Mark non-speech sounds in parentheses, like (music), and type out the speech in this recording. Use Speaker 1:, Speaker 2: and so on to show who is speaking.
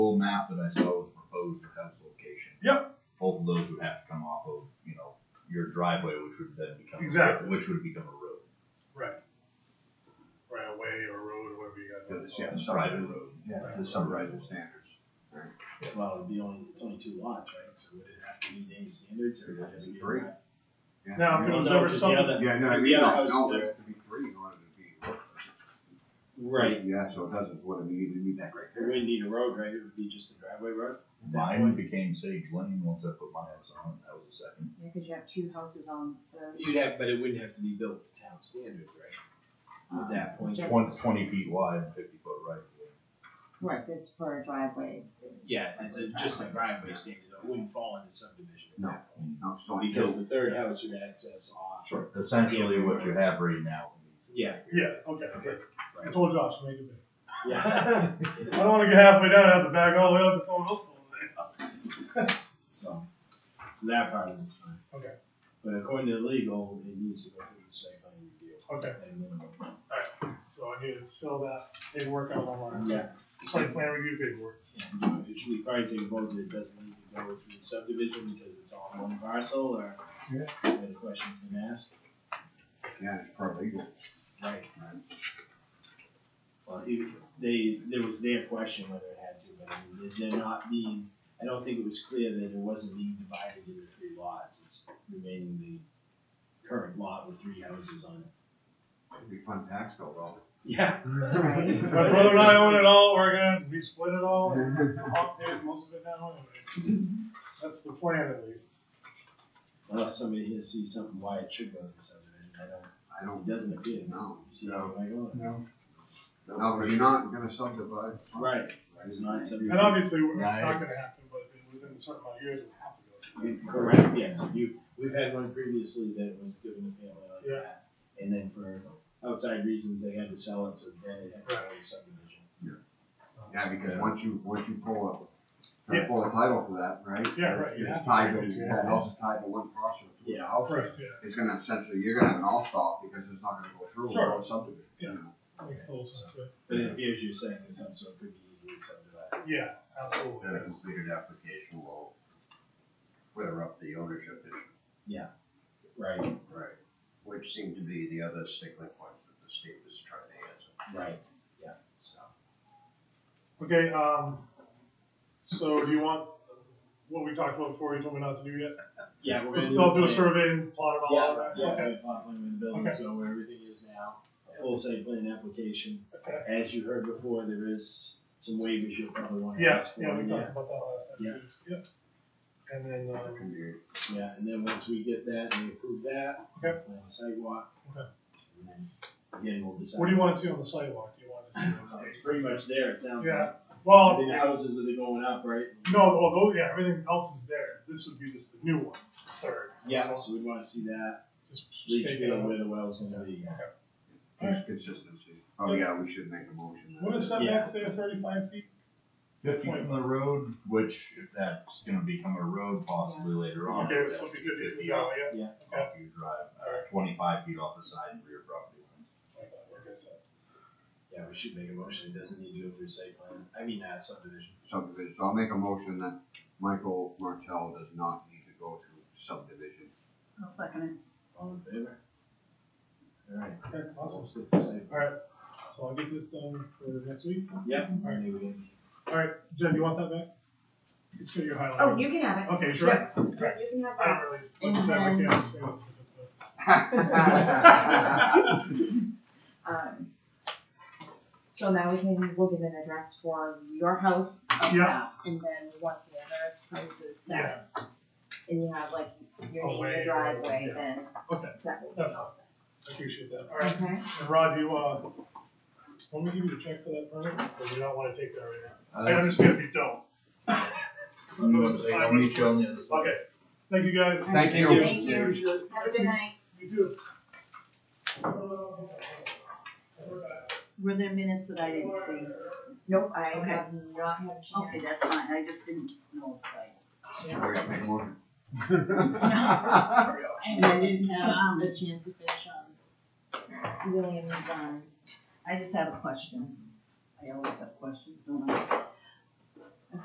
Speaker 1: map that I saw was proposed for house location. Yep. Both of those would have to come off of, you know, your driveway, which would then become.
Speaker 2: Exactly.
Speaker 1: Which would become a road.
Speaker 2: Right. Right away or road or whatever you guys.
Speaker 3: Because,
Speaker 2: wanna
Speaker 3: yeah,
Speaker 2: call it.
Speaker 3: the
Speaker 1: Private
Speaker 3: subdivision,
Speaker 1: road.
Speaker 3: yeah, the subdivision standards.
Speaker 4: Well, it'd be on, it's only two lots, right, so would it have to meet any standards, or would it just be?
Speaker 3: Three. Yeah.
Speaker 2: Now, if it
Speaker 4: No,
Speaker 2: was
Speaker 4: no,
Speaker 2: ever
Speaker 4: 'cause the
Speaker 2: something-
Speaker 4: other-
Speaker 3: Yeah, no, I
Speaker 4: Because
Speaker 3: mean,
Speaker 4: the
Speaker 3: no,
Speaker 4: other house
Speaker 3: no,
Speaker 4: did-
Speaker 3: there has to be three in order to be.
Speaker 4: Right,
Speaker 3: Yeah, so it doesn't, what, we need, we need that right
Speaker 4: we
Speaker 3: there.
Speaker 4: wouldn't need a road, right, it would be just the driveway road?
Speaker 1: Mine became Sage Lane once I put my house on, it. that was the second.
Speaker 5: Yeah, cause you have two houses on the,
Speaker 4: You'd have, but it wouldn't have to be built to town standards, right, at that point?
Speaker 5: Yes.
Speaker 1: One's twenty feet wide and fifty foot right.
Speaker 5: right, this for a driveway. is-
Speaker 4: Yeah, it's a- just a driveway standard, it wouldn't fall into subdivision at
Speaker 3: No.
Speaker 4: that point.
Speaker 3: No, so I
Speaker 4: Because
Speaker 3: guess,
Speaker 4: the third house would access off.
Speaker 1: Sure. Essentially what you have right now.
Speaker 4: Yeah,
Speaker 2: Yeah, okay, okay. I told Josh, make it big.
Speaker 4: yeah, (laughs)
Speaker 2: I don't wanna get halfway down and have to back all the way up to someone else. pulls it.
Speaker 4: so, that part of it's fine.
Speaker 2: Okay.
Speaker 4: But according to the legal, it needs to go through the site plan review.
Speaker 2: Okay,
Speaker 4: At minimum.
Speaker 2: so I need to fill that paperwork out online.
Speaker 4: Yeah.
Speaker 2: Site plan review paperwork.
Speaker 4: It should be probably take a vote that it doesn't need to go through subdivision because it's all one parcel or?
Speaker 3: Yeah.
Speaker 4: Any other questions been asked?
Speaker 3: yeah, it's probably legal.
Speaker 4: Right.
Speaker 3: Right.
Speaker 4: Well, even, they, there was their question whether it had to, but I mean, they're not being, I don't think it was clear that it wasn't being divided into three lots. It's remaining the current lot with three houses on it.
Speaker 3: It'd be fun tax bill though.
Speaker 4: Yeah.
Speaker 5: Right.
Speaker 2: My brother and
Speaker 3: (laughs)
Speaker 2: I own it all, we're gonna, have to- we split it all, and Hawk pays most of it now anyways. That's the plan at least.
Speaker 4: Unless somebody here sees something why it should go through subdivision, I don't,
Speaker 3: I don't,
Speaker 4: it doesn't appear, no.
Speaker 3: no.
Speaker 4: You see how I go?
Speaker 3: No. No, but you're not gonna subdivide.
Speaker 4: Right, it's not subdivision.
Speaker 2: And obviously, it's not gonna happen, but if it was in a certain amount of years, it would have to go.
Speaker 4: Correct, yes, you, we've had one previously that was given a family like
Speaker 2: Yeah.
Speaker 4: that, and then for outside reasons, they had to sell it, so then it had to go to subdivision.
Speaker 3: Yeah, because
Speaker 1: Yeah.
Speaker 3: once you, once you pull up,
Speaker 2: Yeah.
Speaker 3: try to pull a title for that, right?
Speaker 2: Yeah, right, you have
Speaker 3: It's
Speaker 2: to
Speaker 3: tied
Speaker 2: do
Speaker 3: to,
Speaker 2: it, yeah.
Speaker 3: that house is tied to one parcel. two
Speaker 4: Yeah.
Speaker 3: houses.
Speaker 2: Right, yeah,
Speaker 3: It's gonna essentially, you're gonna have an all stop because it's not gonna go through
Speaker 2: Sure.
Speaker 3: without subdivision. you
Speaker 2: Yeah.
Speaker 3: know?
Speaker 2: makes total sense, yeah.
Speaker 4: But it appears you're saying that some sort could be easily subdivided.
Speaker 2: yeah, absolutely.
Speaker 1: That a completed application will clear up the ownership issue.
Speaker 4: Right,
Speaker 1: Right. Which seemed to be the other sticking point that the state was trying to answer.
Speaker 4: right, yeah, so.
Speaker 2: Okay, um, so do you want what we talked about before you told me not to do yet?
Speaker 4: Yeah, we're gonna do.
Speaker 2: They'll do
Speaker 4: plan.
Speaker 2: a survey and plot it all
Speaker 4: Yeah,
Speaker 2: out.
Speaker 4: yeah,
Speaker 2: Okay.
Speaker 4: we plot plan with the building,
Speaker 2: Okay.
Speaker 4: so where everything is now, a full site plan application.
Speaker 2: Okay.
Speaker 4: As you heard before, there is some waivers you'll probably wanna
Speaker 2: Yeah,
Speaker 4: ask for.
Speaker 2: yeah, we
Speaker 4: in there.
Speaker 2: talked about that last time. too. Yep. And then, um,
Speaker 4: Yeah, and then once we get that and we approve that,
Speaker 2: Okay.
Speaker 4: we'll have a sidewalk.
Speaker 2: Okay.
Speaker 4: And then Again, we'll decide.
Speaker 2: what do you wanna see on the sidewalk? Do you want to see
Speaker 4: Uh,
Speaker 2: the
Speaker 4: It's
Speaker 2: stakes?
Speaker 4: pretty much there, it sounds
Speaker 2: Yeah.
Speaker 4: like. I
Speaker 2: Well,
Speaker 4: think the houses that are going up, right?
Speaker 2: no, well, those, yeah, everything else is there. This would be just the new one, third. So
Speaker 4: Yeah, so we'd wanna see that,
Speaker 2: Just stake
Speaker 4: leach
Speaker 2: it
Speaker 4: field
Speaker 2: out.
Speaker 4: where the well's gonna be.
Speaker 3: There's consistency. Oh, yeah, we should make a motion.
Speaker 2: What is setbacks there, thirty-five feet?
Speaker 1: Fifty from the road, which if that's gonna become a road possibly later on.
Speaker 2: Okay, this would be good if we
Speaker 1: Fifty
Speaker 2: got,
Speaker 1: off,
Speaker 2: yeah.
Speaker 1: off your drive, uh, twenty-five feet off the side and rear property line.
Speaker 2: Like that, like I said.
Speaker 4: Yeah, we should make a motion, it doesn't need to go through site plan, I mean, uh, subdivision.
Speaker 3: Subdivision, so I'll make a motion that Michael Martell does not need to go through subdivision.
Speaker 5: I'll second it.
Speaker 4: All in favor? Alright.
Speaker 2: Okay, awesome.
Speaker 4: Stick to site. plan.
Speaker 2: Alright, so I'll get this done for next week.
Speaker 4: Yeah.
Speaker 2: Alright.
Speaker 4: maybe we can-
Speaker 2: Alright, Jen, you want that back? It's for your highlight.
Speaker 5: Oh, you can have it.
Speaker 2: Okay, you sure.
Speaker 5: Yep, You can have
Speaker 2: I
Speaker 5: that.
Speaker 2: don't really, like I said, I can't understand what this is. but-
Speaker 5: Um, so now we can, we'll give an address for your house of
Speaker 2: Yeah.
Speaker 5: that, and then once the other house is set,
Speaker 2: Yeah,
Speaker 5: and you have like your name,
Speaker 2: Away,
Speaker 5: your driveway,
Speaker 2: yeah.
Speaker 5: then
Speaker 2: okay,
Speaker 5: that will be
Speaker 2: That's
Speaker 5: all set.
Speaker 2: I appreciate that. Alright,
Speaker 5: Okay,
Speaker 2: and Rod, you, uh, want me to give you a check for that permit? Or do you not wanna take that right now? I
Speaker 1: Uh,
Speaker 2: understand if you don't.
Speaker 1: I'll meet you on the other side.
Speaker 2: Okay, thank you guys.
Speaker 3: Thank you.
Speaker 5: Thank you. have a good night.
Speaker 2: You too.
Speaker 6: Were there minutes that I didn't see?
Speaker 5: Nope, I
Speaker 6: Okay.
Speaker 5: have not had a chance.
Speaker 6: Okay, that's fine, I just didn't know if I.
Speaker 3: We're gonna make a motion.
Speaker 6: And I didn't have the chance to finish on,
Speaker 5: William is on.
Speaker 6: I just have a question. I always have questions, don't I?